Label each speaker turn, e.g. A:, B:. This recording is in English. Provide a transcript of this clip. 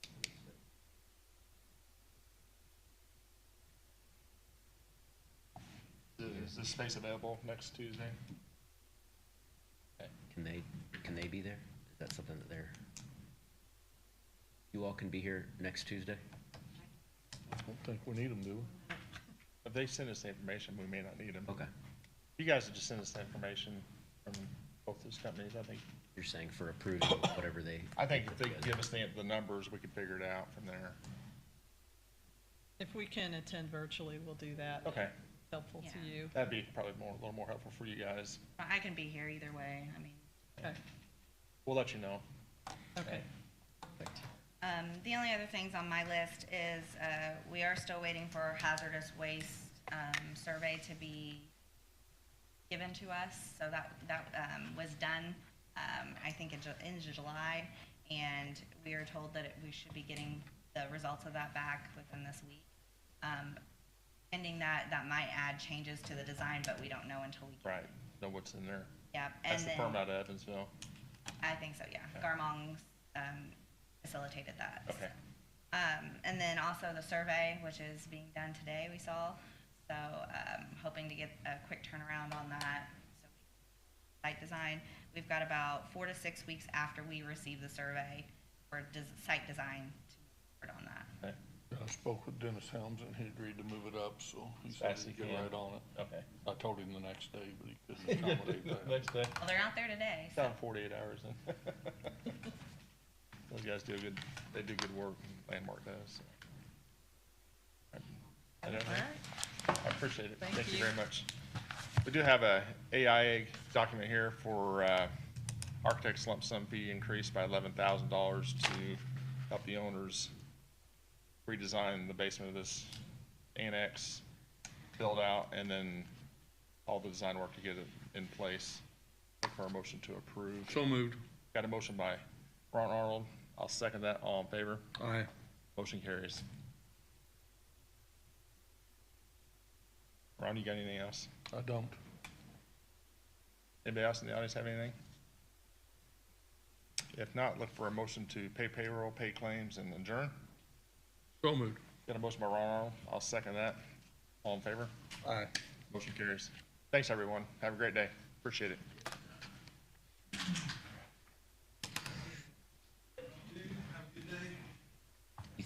A: Is this space available next Tuesday?
B: Can they, can they be there? Is that something that they're? You all can be here next Tuesday?
A: I don't think we need them, do we? If they send us the information, we may not need them.
B: Okay.
A: You guys would just send us the information from both those companies, I think.
B: You're saying for approving whatever they,
A: I think if they give us the, the numbers, we could figure it out from there.
C: If we can attend virtually, we'll do that.
A: Okay,
C: Helpful
D: Yeah.
C: to you.
A: that'd be probably more, a little more helpful for you guys.
D: But I can be here either way, I mean.
C: Okay,
A: We'll let you know.
C: okay.
D: Um, the only other things on my list is, uh, we are still waiting for hazardous waste, um, survey to be given to us, so that, that, um, was done, um, I think in Ju- in July, and we are told that it- we should be getting the results of that back within this week. Um, pending that, that might add changes to the design, but we don't know until we.
A: Right, know what's in there.
D: Yeah, and
A: That's the
D: then-
A: firm out of Evansville.
D: I think so, yeah. Garmong um, facilitated that.
A: Okay.
D: Um, And then also the survey, which is being done today, we saw. So um, hoping to get a quick turnaround on that. So Site design, we've got about four to six weeks after we receive the survey for des- site design to report on that.
A: Okay,
E: I spoke with Dennis Helms and he agreed to move it up, so he
A: As
E: said
A: fast
E: he'd
A: as
E: get
A: he can.
E: right on it.
A: okay.
E: I told him the next day, but he couldn't accommodate that.
A: Next day.
D: Well, they're out there today, so
A: Down forty-eight hours then. Those guys do good, they do good work, Landmark does. so. I don't know. I appreciate it.
C: Thank
A: Thank you
C: you.
A: very much. We do have a AIA document here for uh, architects lump sum fee increased by eleven thousand dollars to help the owners redesign the basement of this annex, build out, and then all the design work to get it in place. Look for a motion to approve.
E: So moved.
A: Got a motion by Ron Arnold. I'll second that. All in favor?
E: Aye.
A: Motion carries. Ron, you got anything else?
E: I don't.
A: Anybody else in the audience have anything? If not, look for a motion to pay payroll, pay claims, and adjourn.
E: So moved.
A: Got a motion by Ron Arnold. I'll second that. All in favor?
E: Aye.
A: Motion carries. Thanks, everyone. Have a great day. Appreciate it.